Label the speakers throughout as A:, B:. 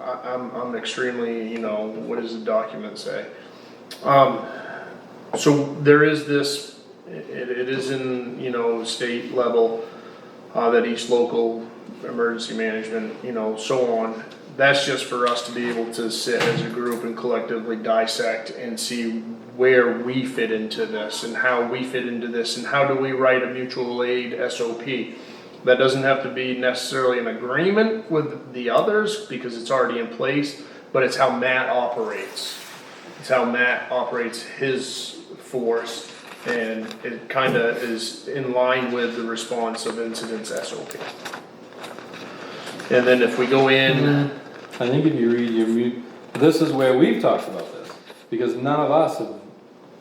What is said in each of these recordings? A: I, I'm, I'm extremely, you know, what does the document say? Um, so there is this, it, it is in, you know, state level, uh, that each local emergency management, you know, so on. That's just for us to be able to sit as a group and collectively dissect and see where we fit into this and how we fit into this and how do we write a mutual aid SOP. That doesn't have to be necessarily an agreement with the others because it's already in place, but it's how Matt operates. It's how Matt operates his force and it kinda is in line with the response of incidents SOP. And then if we go in,
B: I think if you read your mu, this is where we've talked about this, because none of us have,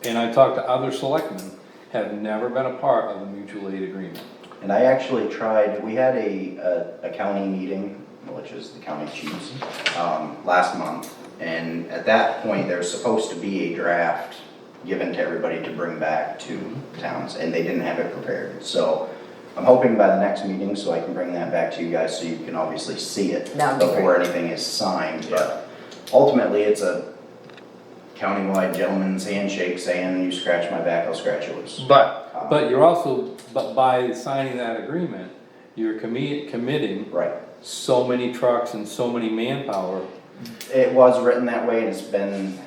B: and I talked to other selectmen, have never been a part of a mutual aid agreement.
C: And I actually tried, we had a, a- a county meeting, which is the county chiefs, um, last month. And at that point, there was supposed to be a draft given to everybody to bring back to towns, and they didn't have it prepared. So I'm hoping by the next meeting, so I can bring that back to you guys, so you can obviously see it
D: That would be
C: before anything is signed, but ultimately, it's a countywide gentleman's handshake saying, you scratch my back, I'll scratch yours.
A: but
C: Um,
B: But you're also, but by signing that agreement, you're commi- committing
C: Right.
B: so many trucks and so many manpower.
C: It was written that way and it's been,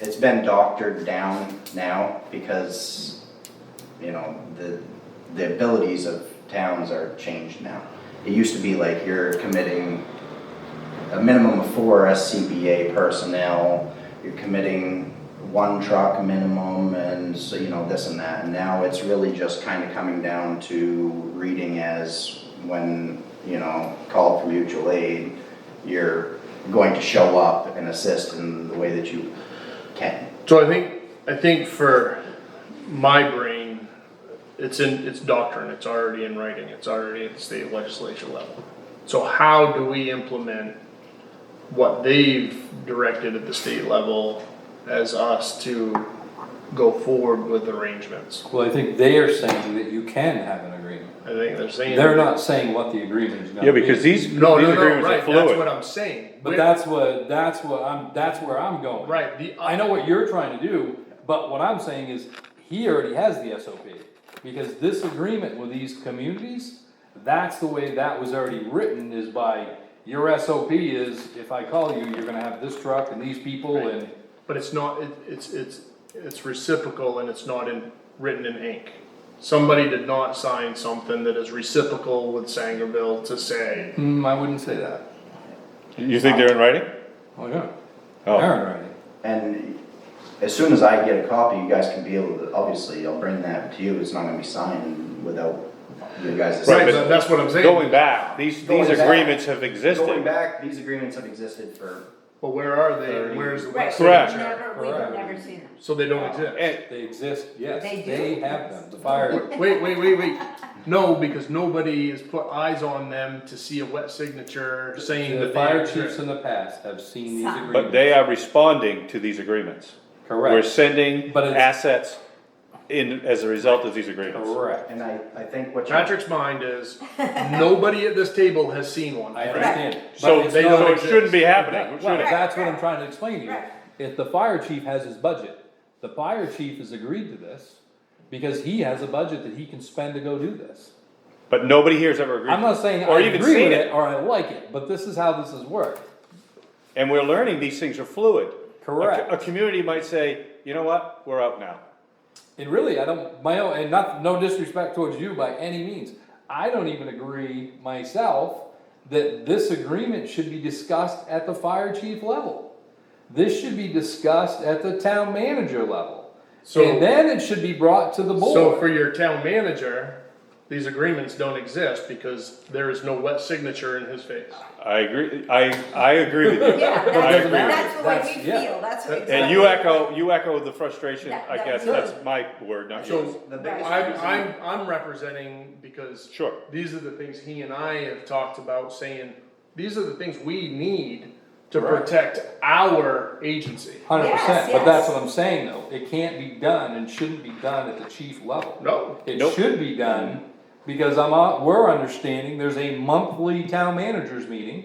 C: it's been doctored down now because, you know, the, the abilities of towns are changed now. It used to be like you're committing a minimum of four SCBA personnel, you're committing one truck minimum and so, you know, this and that. And now it's really just kind of coming down to reading as when, you know, called for mutual aid, you're going to show up and assist in the way that you can.
A: so I think I think for my brain, it's in it's doctrine. It's already in writing. It's already at the state legislature level. So how do we implement what they've directed at the state level as us to go forward with arrangements?
B: Well, I think they are saying that you can have an agreement.
A: I think they're saying
B: They're not saying what the agreement is gonna be.
E: Yeah, because these, these
A: No, no, no,
E: agreements are
A: right, that's what
E: fluid.
A: I'm saying.
B: But
A: We're-
B: that's what, that's what I'm, that's where I'm going.
A: Right, the,
B: I know what you're trying to do, but what I'm saying is, he already has the SOP. Because this agreement with these communities, that's the way that was already written, is by, your SOP is, if I call you, you're gonna have this truck and these people and.
A: But it's not, it, it's, it's, it's reciprocal and it's not in, written in ink. Somebody did not sign something that is reciprocal with Sangerville to say,
B: Hmm, I wouldn't say that.
E: You think they're in writing?
B: Oh, yeah.
E: Oh.
B: Aaron writing.
C: And as soon as I get a copy, you guys can be able to, obviously, I'll bring that to you, it's not gonna be signed without you guys.
A: right,
E: but-
A: that's what I'm saying.
E: Going back, these, these
C: Going back.
E: agreements have
C: Going
E: existed.
C: back, these agreements have existed for,
A: But where are they, and where's the
D: Right,
A: wet
D: we've
E: Correct.
A: signature?
D: never, we've
B: Correct.
D: never seen them.
A: So they don't exist.
E: And
B: They exist, yes,
D: They do.
B: they have them, the fire,
A: Wait, wait, wait, wait, no, because nobody has put eyes on them to see a wet signature saying
B: the
A: that
B: fire
A: they
B: chiefs
A: exist.
B: in the past have seen these agreements.
E: but they are responding to these agreements. We're
B: Correct,
E: sending
B: But it's-
E: assets in, as a result of these agreements.
B: correct,
C: and I, I think what you,
A: Patrick's mind is, nobody at this table has seen one.
B: I understand. But
E: So,
B: it's
E: they
B: not-
E: so it shouldn't be happening,
B: Well,
E: should it?
B: that's what I'm trying to explain to you.
D: Right.
B: If the fire chief has his budget, the fire chief has agreed to this because he has a budget that he can spend to go do this.
E: But nobody here has ever agreed.
B: I'm not saying
E: Or
B: I
E: even
B: agree
E: seen
B: with it or I like it, but this is how this has worked.
E: And we're learning these things are fluid. A co-
B: Correct.
E: A community might say, you know what, we're out now.
B: And really, I don't, my own, and not, no disrespect towards you by any means. I don't even agree myself that this agreement should be discussed at the fire chief level. This should be discussed at the town manager level.
A: So-
B: And then it should be brought to the board.
A: So for your town manager, these agreements don't exist because there is no wet signature in his face.
E: I agree, I, I agree with you.
D: Yeah,
E: I
D: that's,
E: agree with you.
D: that's the way
B: That's-
D: we
B: yeah.
D: feel, that's what.
E: And
D: exactly-
E: you echo, you echo the frustration,
D: That-
E: I
D: that-
E: guess, that's my word, not yours.
A: So
C: the biggest
A: I'm,
C: reason-
A: I'm, I'm representing because.
E: Sure.
A: These are the things he and I have talked about saying, these are the things we need to
B: Right.
A: protect our agency.
B: Hundred
D: Yes,
B: percent, but that's
D: yes.
B: what I'm saying though, it can't be done and shouldn't be done at the chief level.
A: No.
B: It
E: Nope.
B: should be done, because I'm, uh, we're understanding there's a monthly town managers meeting